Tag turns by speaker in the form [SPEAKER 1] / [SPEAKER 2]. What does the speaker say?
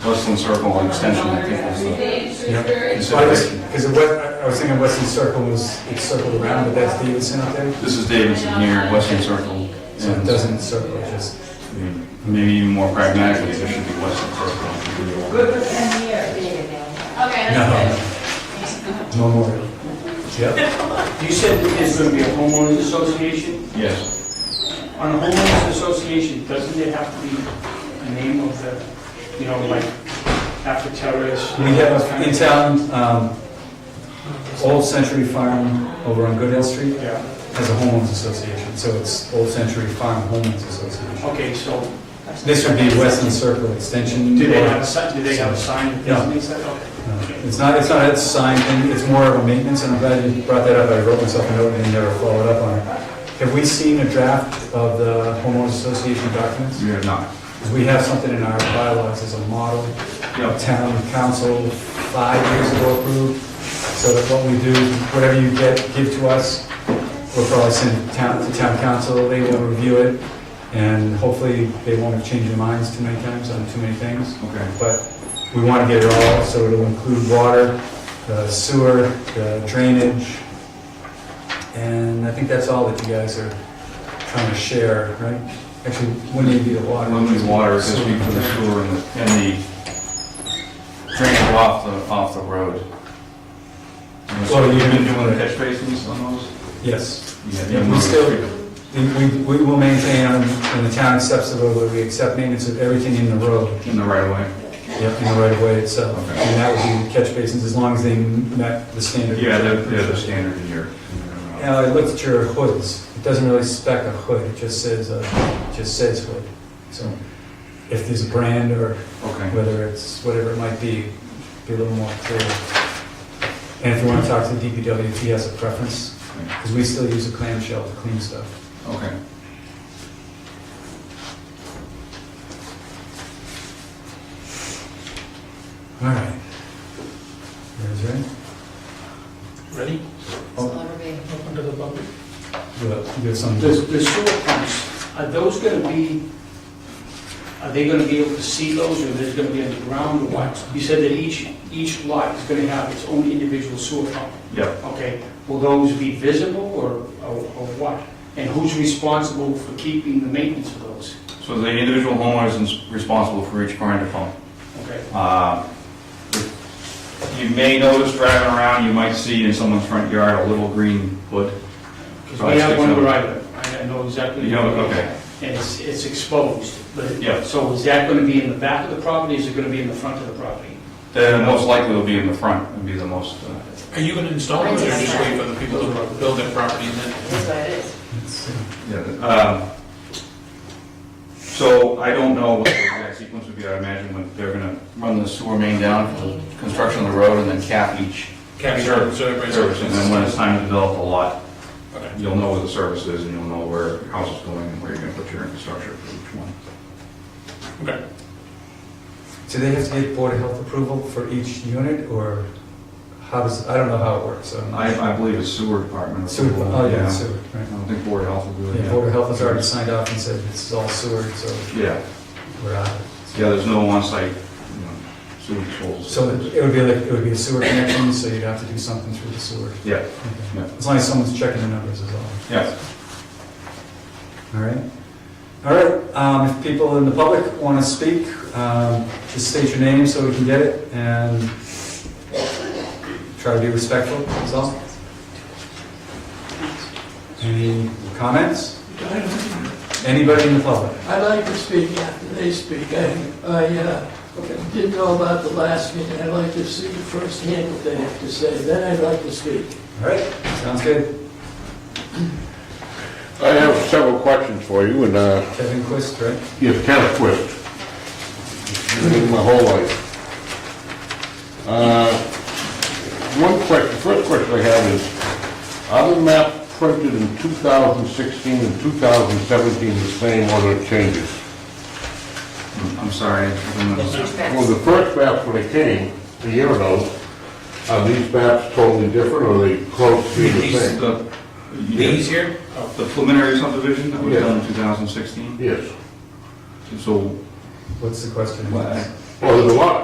[SPEAKER 1] Westland Circle and Extension, I think was the
[SPEAKER 2] Because
[SPEAKER 1] consideration.
[SPEAKER 2] it was, I was thinking Weston Circle was, it's circled around, but that's Davidson up there.
[SPEAKER 1] This is Davidson here, Westland Circle.
[SPEAKER 2] So it
[SPEAKER 1] and-
[SPEAKER 2] doesn't circle, it just,
[SPEAKER 1] I mean, Maybe even more pragmatically, there should be Westland Circle.
[SPEAKER 2] no, no more. Yep.
[SPEAKER 3] You said that there's going to be a homeowners association.
[SPEAKER 1] Yes,
[SPEAKER 3] On a homeowners association, doesn't it have to be a name of the, you know, like, after terrorists?
[SPEAKER 2] We have in town, um, Old Century Farm over on Goodale Street
[SPEAKER 3] Yeah,
[SPEAKER 2] has a homeowners association, so it's Old Century Farm Homeowners Association.
[SPEAKER 3] okay, so
[SPEAKER 2] This would be Weston Circle Extension.
[SPEAKER 3] do they
[SPEAKER 2] or-
[SPEAKER 3] have a sign, do they have a sign that
[SPEAKER 2] No.
[SPEAKER 3] designates that?
[SPEAKER 2] No,
[SPEAKER 3] Okay.
[SPEAKER 2] It's not, it's not a sign thing, it's more of a maintenance, and I'm glad you brought that up, I wrote myself a note and never followed up on it. Have we seen a draft of the homeowners association documents?
[SPEAKER 1] we have not.
[SPEAKER 2] Because we have something in our bylaws as a model,
[SPEAKER 1] Yeah.
[SPEAKER 2] town council five years ago approved, so that what we do, whatever you get, give to us, we'll probably send it town, to town council, they will review it, and hopefully they won't have changed their minds too many times on too many things
[SPEAKER 1] Okay.
[SPEAKER 2] but we want to get it all, so it'll include water, the sewer, the drainage, and I think that's all that you guys are trying to share, right? Actually, wouldn't it be the water?
[SPEAKER 1] Unlimited water, this would be for the sewer and the, and the drainage off the, off the road.
[SPEAKER 2] Well,
[SPEAKER 1] So
[SPEAKER 2] you-
[SPEAKER 1] you've been doing the catch basins on those?
[SPEAKER 2] Yes.
[SPEAKER 1] Yeah,
[SPEAKER 2] Yeah, we still, we, we- we will maintain, um, when the town accepts the roadway, we accept maintenance of everything in the road,
[SPEAKER 1] In the right of way?
[SPEAKER 2] yep, in the right of way itself.
[SPEAKER 1] Okay.
[SPEAKER 2] And that would be catch basins, as long as they met the standard.
[SPEAKER 1] Yeah, they're, they're the standard in here.
[SPEAKER 2] Now, I looked at your hoods, it doesn't really spec a hood, it just says, uh, it just says hood. So if there's a brand or
[SPEAKER 1] Okay.
[SPEAKER 2] whether it's, whatever it might be, be a little more clear. And if you want to talk to DPW, if he has a preference, because we still use a clamshell to clean stuff.
[SPEAKER 1] Okay.
[SPEAKER 2] All right. You guys ready?
[SPEAKER 3] Ready? Open to the public.
[SPEAKER 2] You got- you got some,
[SPEAKER 3] The the sewer pumps, are those going to be, are they going to be able to see those, or there's going to be underground, or what? You said that each, each lot is going to have its own individual sewer pump.
[SPEAKER 1] Yep.
[SPEAKER 3] Okay, will those be visible or, or or what? And who's responsible for keeping the maintenance of those?
[SPEAKER 1] So the individual homeowner is responsible for each grinder pump.
[SPEAKER 3] Okay,
[SPEAKER 1] Uh, You may notice driving around, you might see in someone's front yard a little green hood. Oh,
[SPEAKER 3] because we have one where I live, I know exactly.
[SPEAKER 1] You know, okay.
[SPEAKER 3] And it's, it's exposed, but.
[SPEAKER 1] Yeah.
[SPEAKER 3] So is that going to be in the back of the property, is it going to be in the front of the property?
[SPEAKER 1] Then most likely will be in the front, would be the most, uh,
[SPEAKER 4] Are you gonna install it, or just wait for the people to build their property and then?
[SPEAKER 5] That's what it is.
[SPEAKER 2] let's see.
[SPEAKER 1] yeah, um, so I don't know what the exact sequence would be, I imagine when they're gonna run the sewer main down for the construction of the road and then cap each
[SPEAKER 4] Capture, it, so everybody's.
[SPEAKER 1] service, and then when it's time to develop a lot,
[SPEAKER 4] Okay.
[SPEAKER 1] You'll know where the service is, and you'll know where your house is going, and where you're gonna put your infrastructure for each one.
[SPEAKER 4] Okay.
[SPEAKER 2] Do they have to get Board of Health approval for each unit, or how does, I don't know how it works, so. I'm not-
[SPEAKER 1] I, I believe it's sewer department.
[SPEAKER 2] Sewer,
[SPEAKER 1] approval,
[SPEAKER 2] oh, yeah, sewer,
[SPEAKER 1] I
[SPEAKER 2] right.
[SPEAKER 1] don't think Board of Health will do it.
[SPEAKER 2] The
[SPEAKER 1] yet.
[SPEAKER 2] Board of Health has already signed off and said this is all sewer, so
[SPEAKER 1] Yeah,
[SPEAKER 2] we're out.
[SPEAKER 1] yeah, there's no on-site, you know, sewer controls.
[SPEAKER 2] So it would be like, it would be a sewer connection, so you'd have to do something through the sewer.
[SPEAKER 1] Yeah,
[SPEAKER 2] Okay.
[SPEAKER 1] Yeah.
[SPEAKER 2] As long as someone's checking the numbers is all.
[SPEAKER 1] yeah.
[SPEAKER 2] All right. All right, um, if people in the public want to speak, um, just state your name so we can get it and try to be respectful, that's all. Any comments? Anybody in the public?
[SPEAKER 6] I'd like to speak after they speak. I, I uh, didn't know about the last meeting. I'd like to see firsthand what they have to say, then I'd like to speak.
[SPEAKER 2] All right, sounds good.
[SPEAKER 7] I have several questions for you, and uh,
[SPEAKER 2] Kevin Quist, right?
[SPEAKER 7] you've kind of twist. My whole life. Uh, One question, first question I have is, are the map printed in 2016 and 2017 the same or the changes?
[SPEAKER 1] I'm sorry. I'm gonna-
[SPEAKER 7] Well, the first maps when they came, a year ago, are these maps totally different, or are they close to the
[SPEAKER 4] These-
[SPEAKER 7] same?
[SPEAKER 1] The you
[SPEAKER 4] These
[SPEAKER 1] did-
[SPEAKER 4] here?
[SPEAKER 1] the preliminary subdivision that was
[SPEAKER 7] Yeah.
[SPEAKER 1] done in 2016,
[SPEAKER 7] Yes.
[SPEAKER 1] so
[SPEAKER 2] What's the question?
[SPEAKER 1] Well, I-
[SPEAKER 7] Well, there's a lot.